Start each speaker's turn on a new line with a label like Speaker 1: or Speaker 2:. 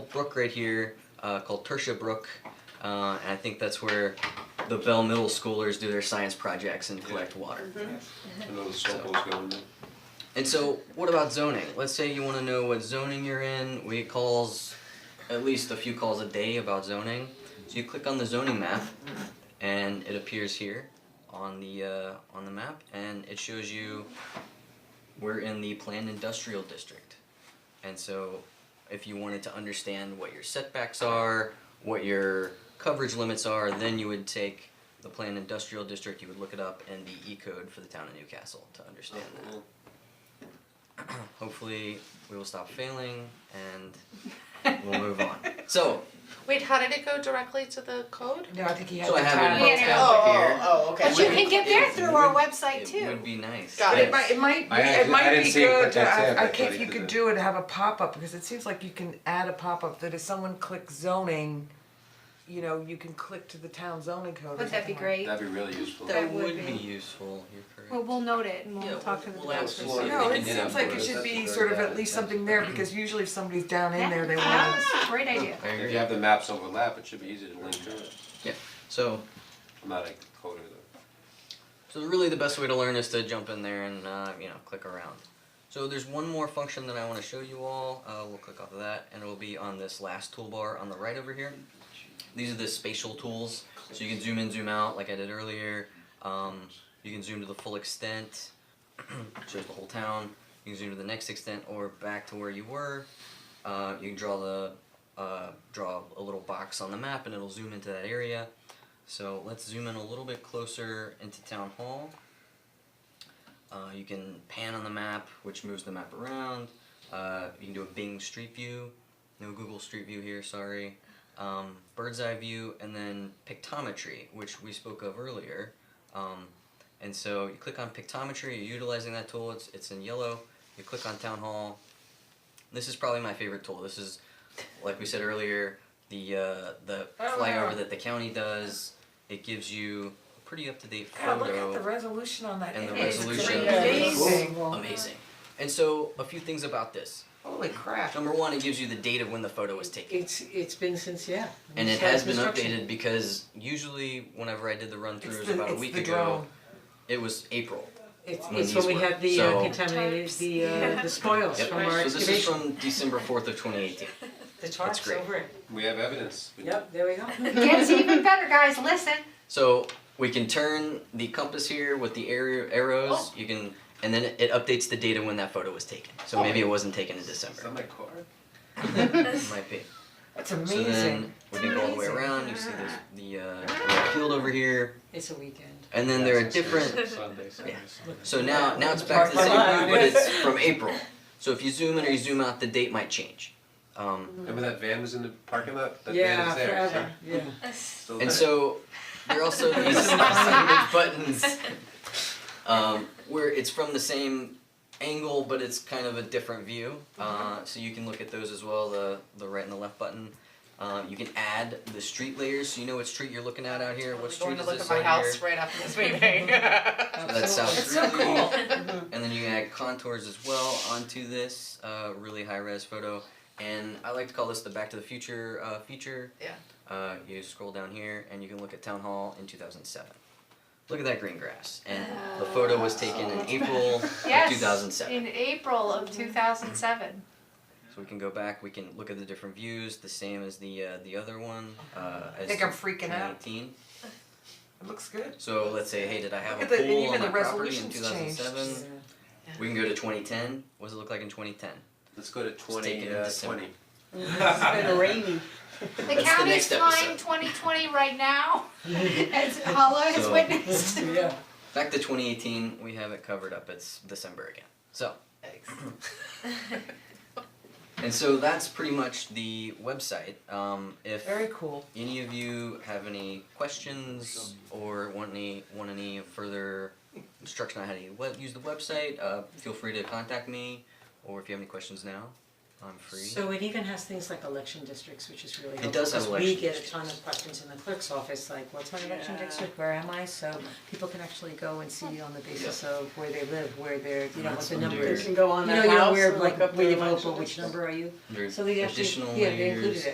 Speaker 1: brook right here uh, called Tertia Brook, uh, and I think that's where the Bell Middle Schoolers do their science projects and collect water.
Speaker 2: Another softball's going there.
Speaker 1: And so, what about zoning? Let's say you want to know what zoning you're in. We get calls, at least a few calls a day about zoning. So you click on the zoning map, and it appears here on the uh, on the map, and it shows you we're in the planned industrial district. And so, if you wanted to understand what your setbacks are, what your coverage limits are, then you would take the planned industrial district. You would look it up and the E code for the town of Newcastle to understand that hopefully we will stop failing and we'll move on. So,
Speaker 3: Wait, how did it go directly to the code?
Speaker 4: No, I think he had
Speaker 1: So
Speaker 4: the
Speaker 1: I have it
Speaker 4: time.
Speaker 1: in my- Yeah.
Speaker 5: Oh, oh, oh, okay.
Speaker 6: But you can get there through our website
Speaker 1: it
Speaker 6: too.
Speaker 1: would be nice.
Speaker 5: Got
Speaker 4: But it
Speaker 1: Yes.
Speaker 4: might, it might, be-
Speaker 2: I
Speaker 4: it
Speaker 2: actually- I
Speaker 4: might
Speaker 2: didn't
Speaker 4: be
Speaker 2: see it, but
Speaker 4: good to,
Speaker 2: that's it,
Speaker 4: I, I
Speaker 2: but
Speaker 4: can't,
Speaker 2: you
Speaker 4: if you
Speaker 2: could
Speaker 4: could
Speaker 2: do
Speaker 4: do it, have a pop-up, because it seems like you can add a pop-up that if someone clicks zoning, you know, you can click to the town zoning code or
Speaker 6: Wouldn't that be
Speaker 4: something like
Speaker 6: great?
Speaker 2: That'd be really useful.
Speaker 6: That
Speaker 1: It would
Speaker 6: would
Speaker 1: be
Speaker 6: be.
Speaker 1: useful, you're correct.
Speaker 7: Well, we'll note it and
Speaker 1: Yeah,
Speaker 7: we'll talk to the
Speaker 1: we'll- we'll ask
Speaker 7: developers.
Speaker 1: them.
Speaker 2: Yeah,
Speaker 4: No,
Speaker 2: we
Speaker 4: it
Speaker 2: can do that
Speaker 4: seems like it
Speaker 2: for us.
Speaker 4: should be
Speaker 2: That's
Speaker 4: sort of
Speaker 2: very
Speaker 4: at
Speaker 2: bad.
Speaker 4: least something there, because usually if somebody's down in
Speaker 7: Yeah,
Speaker 4: there, they want.
Speaker 7: that's a great idea.
Speaker 1: I
Speaker 2: If
Speaker 1: agree.
Speaker 2: you have the maps overlap, it should be easy to link to it.
Speaker 1: So,
Speaker 2: I'm not a coder though.
Speaker 1: so really the best way to learn is to jump in there and uh, you know click around. So there's one more function that I want to show you all. Uh, we'll click off of that, and it'll be on this last toolbar on the right over here. These are the spatial tools, so you can zoom in, zoom out, like I did earlier. Um, you can zoom to the full extent, shows the whole town. You can zoom to the next extent or back to where you were. Uh, you can draw the uh, draw a little box on the map, and it'll zoom into that area. So let's zoom in a little bit closer into town hall. Uh, you can pan on the map, which moves the map around. Uh, you can do a Bing Street View. No Google Street View here, sorry. Um, bird's eye view, and then pictometry, which we spoke of earlier. Um, and so you click on pictometry, you're utilizing that tool, it's, it's in yellow. You click on town hall. This is probably my favorite tool. This is, like we said earlier, the, uh, the
Speaker 4: Oh,
Speaker 1: flyover
Speaker 4: yeah.
Speaker 1: that the county does. It gives you a pretty up to date
Speaker 4: God,
Speaker 1: photo.
Speaker 4: look at the resolution on that,
Speaker 1: And the
Speaker 4: it is
Speaker 1: resolution.
Speaker 4: amazing.
Speaker 1: Amazing. And so, a few things about this.
Speaker 4: Uh-huh. Holy crap.
Speaker 1: Number one, it gives you the date of when the photo was taken.
Speaker 8: It's, it's been since, yeah.
Speaker 1: And it
Speaker 8: since
Speaker 1: has been
Speaker 8: construction.
Speaker 1: updated because usually, whenever I did the run
Speaker 4: It's
Speaker 1: throughs
Speaker 4: the,
Speaker 1: about a
Speaker 4: it's
Speaker 1: week
Speaker 4: the
Speaker 1: ago,
Speaker 4: drone.
Speaker 1: it was April.
Speaker 8: It's,
Speaker 1: when
Speaker 8: it's when
Speaker 1: these
Speaker 8: we
Speaker 1: were-
Speaker 8: had the uh,
Speaker 1: so-
Speaker 8: contaminated,
Speaker 7: Tarps.
Speaker 8: the, uh, the spoils
Speaker 1: Yep.
Speaker 8: from our
Speaker 1: So this is
Speaker 8: excavation.
Speaker 1: from December 4th of 2018.
Speaker 8: The
Speaker 1: That's
Speaker 8: tarps
Speaker 1: great.
Speaker 8: over it.
Speaker 2: We have evidence. We-
Speaker 8: Yep, there we go.
Speaker 6: Gets even better, guys, listen.
Speaker 1: So we can turn the compass here with the arrow, arrows.
Speaker 4: Oh.
Speaker 1: You can, and then it updates the date of when that photo was taken. So
Speaker 4: Oh.
Speaker 1: maybe it wasn't taken in
Speaker 2: Is that
Speaker 1: December.
Speaker 2: my car?
Speaker 1: It might be.
Speaker 4: That's
Speaker 1: So then
Speaker 4: amazing.
Speaker 1: we can go all the way
Speaker 4: Amazing.
Speaker 1: around. You see this, the uh, the field over here,
Speaker 8: It's a weekend.
Speaker 1: and then there are different.
Speaker 2: Sunday, Sunday, Sunday.
Speaker 1: So now, now it's back to the same route, but it's from April. So if you zoom in or you zoom out, the date might change. Um,
Speaker 2: Remember that van was in the parking lot? That van
Speaker 8: Yeah,
Speaker 2: is there, it's
Speaker 8: forever, yeah.
Speaker 2: still
Speaker 1: and
Speaker 2: there.
Speaker 1: so there are also these sandwich buttons um, where it's from the same angle, but it's kind of a different view. Uh, so you can look at those as well, the the right and the left button. Um, you can add the street layers, so you know what street you're looking at out here. What street is this out here?
Speaker 3: right after this
Speaker 1: So
Speaker 3: meeting.
Speaker 1: that's South
Speaker 4: It's
Speaker 1: Greeley.
Speaker 4: so cool. Mm-hmm.
Speaker 1: And then you can add contours as well onto this uh, really high res photo. And I like to call this the Back to the Future uh, feature.
Speaker 3: Yeah.
Speaker 1: Uh, you scroll down here and you can look at Town Hall in 2007. Look at that green grass. And the photo was taken in April
Speaker 7: Yes,
Speaker 1: of 2007.
Speaker 7: In April of two thousand seven.
Speaker 1: So we can go back, we can look at the different views, the same as the uh, the other one. Uh, as
Speaker 4: I think I'm freaking out.
Speaker 1: 2018.
Speaker 4: It looks good.
Speaker 1: So let's say, hey, did I have
Speaker 4: Look at
Speaker 1: a
Speaker 4: the- and
Speaker 1: pool
Speaker 4: even
Speaker 1: on
Speaker 4: the
Speaker 1: my property in
Speaker 4: resolution's changed.
Speaker 1: 2007? We can go to 2010. What does it look like in 2010?
Speaker 2: Let's go to
Speaker 1: taken
Speaker 2: twenty,
Speaker 1: in
Speaker 2: uh,
Speaker 1: December.
Speaker 2: twenty.
Speaker 8: It's been rainy.
Speaker 7: The
Speaker 1: That's the
Speaker 7: county's
Speaker 1: next
Speaker 7: flying
Speaker 1: episode.
Speaker 7: twenty twenty right now, as Allah has
Speaker 1: So-
Speaker 7: witnessed.
Speaker 8: Yeah.
Speaker 1: Back to 2018, we have it covered up. It's December again. So, and so that's pretty much the website. Um, if
Speaker 4: Very cool.
Speaker 1: any of you have any questions or want any want any further instruction on how to web, use the website, uh, feel free to contact me. Or if you have any questions now, I'm free.
Speaker 8: So it even has things like election districts, which is really helpful,
Speaker 1: does have
Speaker 8: because we
Speaker 1: election
Speaker 8: get a
Speaker 1: districts.
Speaker 8: ton of questions in the clerk's office, like, what's my election
Speaker 7: Yeah.
Speaker 8: district, where am I? So people can actually go and see on the basis of where they live, where they're, you know, what the number
Speaker 1: under-
Speaker 8: is.
Speaker 1: You
Speaker 8: You know, you know, where like, where you vote,
Speaker 7: but
Speaker 8: but which number are you?
Speaker 1: There's
Speaker 8: So they actually,
Speaker 1: additional
Speaker 8: yeah, they included
Speaker 1: layers.
Speaker 8: it.